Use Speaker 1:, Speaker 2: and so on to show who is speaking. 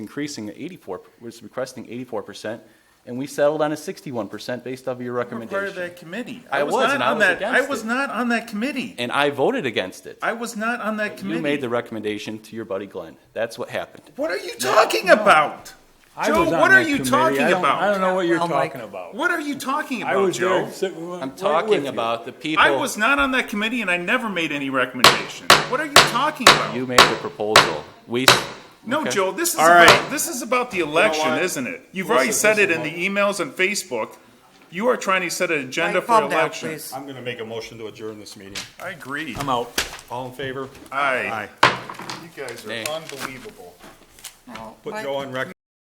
Speaker 1: increasing at 84, was requesting 84%, and we settled on a 61% based off of your
Speaker 2: You were part of
Speaker 1: recommendation.
Speaker 2: that committee.
Speaker 1: I was,
Speaker 2: not
Speaker 1: and I
Speaker 2: on
Speaker 1: was
Speaker 2: that- I
Speaker 1: against
Speaker 2: was
Speaker 1: it.
Speaker 2: not on that committee.
Speaker 1: And I voted against it.
Speaker 2: I was not on that committee.
Speaker 1: You made the recommendation to your buddy Glenn. That's what happened.
Speaker 2: What are you talking about?
Speaker 3: I
Speaker 2: Joe,
Speaker 3: was on
Speaker 2: what are
Speaker 3: that
Speaker 2: you
Speaker 3: committee.
Speaker 2: talking
Speaker 3: I don't-
Speaker 2: about?
Speaker 3: I don't know what you're
Speaker 4: Well, Mike,
Speaker 3: talking about.
Speaker 2: What are you talking
Speaker 3: I
Speaker 2: about,
Speaker 3: was
Speaker 2: Joe?
Speaker 3: there. sitting right
Speaker 1: I'm
Speaker 3: with
Speaker 1: talking
Speaker 3: you.
Speaker 1: about the people.
Speaker 2: I was not on that committee and I never made any recommendation. What are you talking about?
Speaker 1: You made the proposal. We.
Speaker 2: No,
Speaker 1: okay.
Speaker 2: Joe, this is
Speaker 3: All
Speaker 2: about,
Speaker 3: right.
Speaker 2: this is about the election,
Speaker 3: what?
Speaker 2: isn't it? You've
Speaker 3: Listen,
Speaker 2: already said it in
Speaker 3: listen,
Speaker 2: the emails and Facebook. You are trying to set an agenda
Speaker 4: Mike,
Speaker 2: for
Speaker 4: calm down,
Speaker 2: election.
Speaker 4: please.
Speaker 5: I'm gonna make a motion to adjourn this meeting.
Speaker 2: I agree.
Speaker 3: I'm out.
Speaker 5: All in favor?
Speaker 2: Aye. You guys are unbelievable.
Speaker 4: No,
Speaker 5: Put
Speaker 4: Mike-
Speaker 5: Joe on record.